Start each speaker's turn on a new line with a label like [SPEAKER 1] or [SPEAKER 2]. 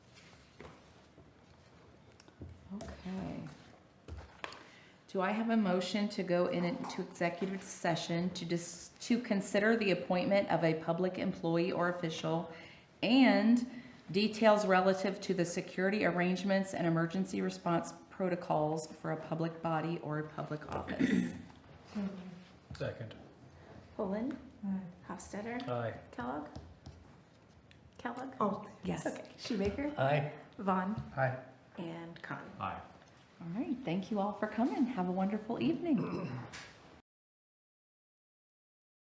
[SPEAKER 1] Do I have a motion to go in into executive session to dis, to consider the appointment of a public employee or official and details relative to the security arrangements and emergency response protocols for a public body or a public office?
[SPEAKER 2] Second.
[SPEAKER 3] Poland,
[SPEAKER 4] Aye.
[SPEAKER 3] Hofstadter,
[SPEAKER 2] Aye.
[SPEAKER 3] Kellogg? Kellogg?
[SPEAKER 4] Oh,
[SPEAKER 1] Yes.
[SPEAKER 3] Okay, Shoemaker,
[SPEAKER 2] Aye.
[SPEAKER 3] Vaughn,
[SPEAKER 2] Aye.
[SPEAKER 3] and Con.
[SPEAKER 2] Aye.
[SPEAKER 1] All right, thank you all for coming. Have a wonderful evening.